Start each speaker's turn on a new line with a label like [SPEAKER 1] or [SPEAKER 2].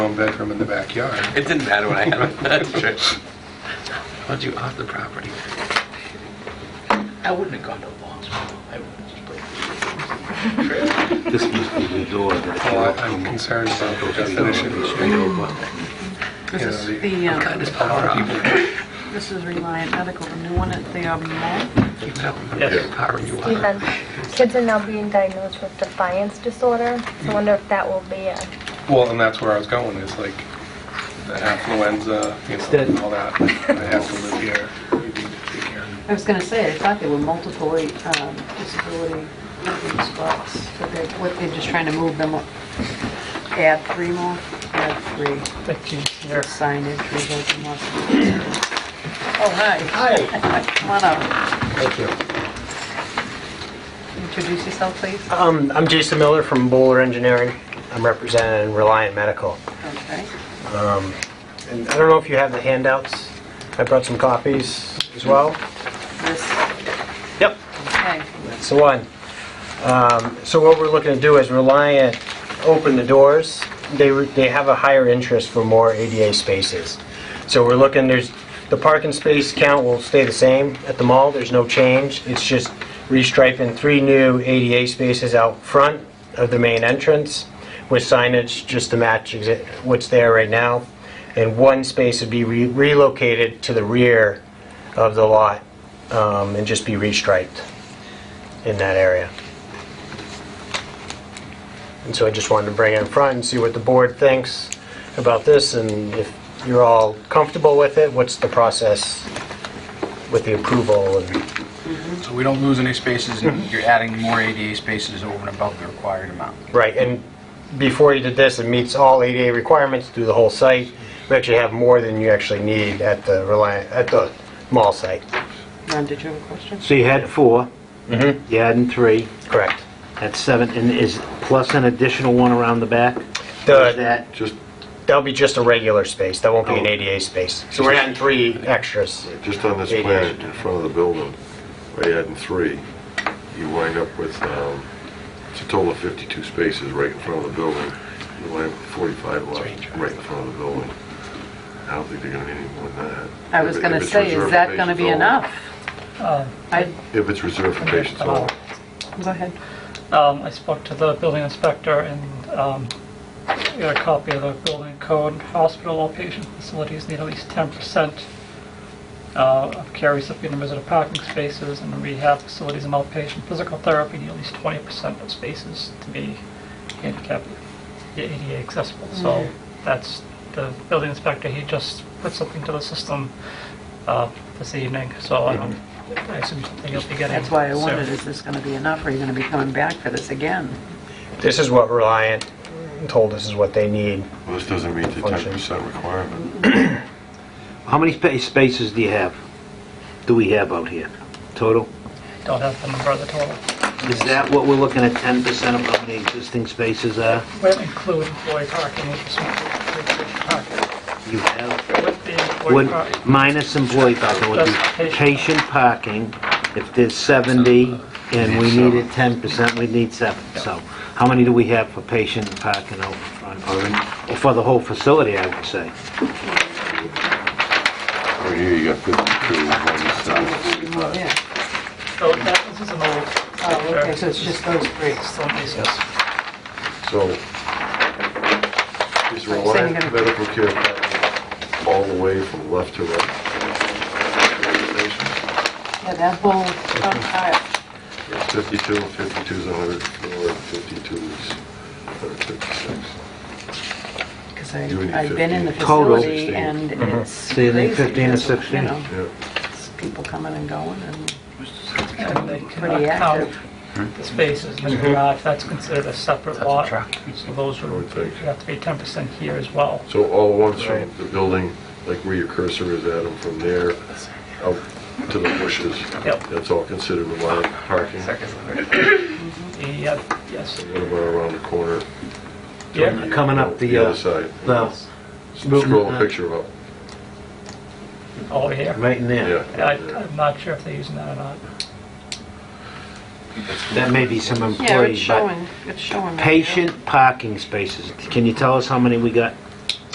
[SPEAKER 1] one bedroom in the backyard.
[SPEAKER 2] It didn't matter when I had my church. I want you off the property. I wouldn't have gone to Lawrenceville. I would have just played.
[SPEAKER 3] This must be the door that...
[SPEAKER 1] Well, I- I'm concerned about the definition. You
[SPEAKER 4] This is
[SPEAKER 1] know,
[SPEAKER 4] the,
[SPEAKER 2] I'm cutting
[SPEAKER 4] um,
[SPEAKER 2] his power off.
[SPEAKER 4] this is Reliant Medical, the new one at the um, mall.
[SPEAKER 2] Keep it up. I'm gonna get power you
[SPEAKER 5] Even
[SPEAKER 2] want.
[SPEAKER 5] kids are now being diagnosed with defiance disorder. So I wonder if that will be a
[SPEAKER 1] Well, and that's where I was going, is like the affluenza, you know,
[SPEAKER 3] dead.
[SPEAKER 1] and all that. I have to live here. You need to take care of me.
[SPEAKER 4] I was going to say, I thought there were multiple um, disability living spots, but they're, what, they're just trying to move them up. Add three more, add three. There's Signage, results in lots of... Oh, hi,
[SPEAKER 6] Hi,
[SPEAKER 4] come on up.
[SPEAKER 6] thank you.
[SPEAKER 4] Introduce yourself, please.
[SPEAKER 6] Um, I'm Jason Miller from Bowler Engineering. I'm representing Reliant Medical.
[SPEAKER 4] Okay.
[SPEAKER 6] And I don't know if you have the handouts. I brought some copies as well.
[SPEAKER 4] This,
[SPEAKER 6] Yep.
[SPEAKER 4] okay.
[SPEAKER 6] That's the one. Um, So what we're looking to do is Reliant open the doors. They, were- they have a higher interest for more ADA spaces. So we're looking, there's, the parking space count will stay the same at the mall, there's no change. It's just restriping three new ADA spaces out front of the main entrance with signage just to match exi- what's there right now. And one space would be re- relocated to the rear of the lot um, and just be restriped in that area. And so I just wanted to bring it in front and see what the board thinks about this, and if you're all comfortable with it, what's the process with the approval? and-
[SPEAKER 7] So we don't lose any spaces, and you're adding more ADA spaces over and above the required amount.
[SPEAKER 6] Right, and before you did this, it meets all ADA requirements through the whole site. We actually have more than you actually need at the Reliant, at the mall site.
[SPEAKER 4] Ron, did you have a question?
[SPEAKER 3] So you had four, you added three,
[SPEAKER 6] Correct.
[SPEAKER 3] that's seven, and is plus an additional one around the back?
[SPEAKER 6] Uh,
[SPEAKER 3] Is
[SPEAKER 6] The-
[SPEAKER 3] that,
[SPEAKER 8] Just,
[SPEAKER 6] That'll be just a regular space, that won't be an
[SPEAKER 3] Oh.
[SPEAKER 6] ADA space. So we're adding three extras.
[SPEAKER 8] just on this
[SPEAKER 6] Yeah,
[SPEAKER 8] plan, in front of the building, by adding three, you wind up with, um, it's a total of 52 spaces right in front of the building. You wind up with 45 left, right in front of the building. I don't think they're gonna need any more than that.
[SPEAKER 4] I was
[SPEAKER 8] If it-
[SPEAKER 4] going
[SPEAKER 8] if
[SPEAKER 4] to
[SPEAKER 8] it's
[SPEAKER 4] say, is
[SPEAKER 8] reserved
[SPEAKER 4] that
[SPEAKER 8] for
[SPEAKER 4] going to be
[SPEAKER 8] patients
[SPEAKER 4] enough? Oh. I,
[SPEAKER 8] only. If it's reserved for patients only.
[SPEAKER 4] Um, go ahead.
[SPEAKER 9] Um, I spoke to the building inspector and um, got a copy of the building code. Hospital outpatient facilities need at least 10% uh, of care recipient numbers of parking spaces, and rehab facilities and outpatient physical therapy need at least 20% of spaces to be handicap ADA accessible. So
[SPEAKER 4] Mm-hmm.
[SPEAKER 9] that's the building inspector, he just put something to the system uh, this evening, so I don't, I assume something you'll be getting.
[SPEAKER 4] Mm-hmm. That's why I
[SPEAKER 9] soon.
[SPEAKER 4] wondered, is this going to be enough, or are you going to be coming back for this again?
[SPEAKER 6] This is what Reliant told us is what they need.
[SPEAKER 8] Well, This doesn't meet the
[SPEAKER 6] Function.
[SPEAKER 8] 10% requirement.
[SPEAKER 3] how many spa- spaces do you have, do we have out here, total?
[SPEAKER 9] Don't have the number of the total.
[SPEAKER 3] Is that what we're looking at, 10% of how many existing spaces are?
[SPEAKER 9] Will include employee parking, which is parking.
[SPEAKER 3] You have,
[SPEAKER 9] With the employee
[SPEAKER 3] would,
[SPEAKER 9] parking,
[SPEAKER 3] minus employee parking, would be
[SPEAKER 9] Just patient.
[SPEAKER 3] patient parking, if there's 70, and we needed 10%, we'd need seven. So how many do we have for patient parking out front, or in- or for the whole facility, I would say?
[SPEAKER 8] Over Oh, here, you got 52,
[SPEAKER 4] Well,
[SPEAKER 8] 47.
[SPEAKER 4] yeah.
[SPEAKER 9] so that, this is an old.
[SPEAKER 4] Oh, okay, so it's just those three.
[SPEAKER 9] Some pieces.
[SPEAKER 8] So, is
[SPEAKER 4] you're saying
[SPEAKER 8] Reliant
[SPEAKER 4] you're gonna-
[SPEAKER 8] Medical Care all the way from left to right?
[SPEAKER 4] Yeah, that whole front aisle.
[SPEAKER 8] 52, 52 is 104, 52 is 156.
[SPEAKER 4] Because
[SPEAKER 8] You would need
[SPEAKER 4] I've been in the
[SPEAKER 8] 15.
[SPEAKER 3] Total. Uh-huh.
[SPEAKER 4] facility and it's
[SPEAKER 3] So you need
[SPEAKER 4] crazy.
[SPEAKER 3] 15 and
[SPEAKER 4] There's, you
[SPEAKER 3] 16.
[SPEAKER 4] know,
[SPEAKER 8] Yeah.
[SPEAKER 4] it's People coming and going and
[SPEAKER 9] And they
[SPEAKER 4] Pretty
[SPEAKER 9] cannot count
[SPEAKER 4] active.
[SPEAKER 9] the spaces in the garage, that's considered a separate
[SPEAKER 2] Hmm? That's a
[SPEAKER 9] lot.
[SPEAKER 2] truck.
[SPEAKER 9] So those would,
[SPEAKER 8] Mm-hmm. I would think.
[SPEAKER 9] have to be 10% here as well.
[SPEAKER 8] So all ones from the building, like where your cursor is at, and from there out to the bushes.
[SPEAKER 9] Yep.
[SPEAKER 8] That's all considered allowed parking. What
[SPEAKER 2] Second one.
[SPEAKER 9] The, uh, yes,
[SPEAKER 8] about around the corner?
[SPEAKER 9] yeah,
[SPEAKER 3] Coming up the,
[SPEAKER 8] The
[SPEAKER 3] uh,
[SPEAKER 8] other side.
[SPEAKER 3] the-
[SPEAKER 8] Scroll a picture up.
[SPEAKER 9] over here.
[SPEAKER 3] Right in there.
[SPEAKER 8] Yeah.
[SPEAKER 9] I- I'm not sure if they're using that or not.
[SPEAKER 3] That may be some
[SPEAKER 4] Yeah, it's
[SPEAKER 3] employee, but
[SPEAKER 4] showing, it's showing. right now.
[SPEAKER 3] patient parking spaces, can you tell us how many we got?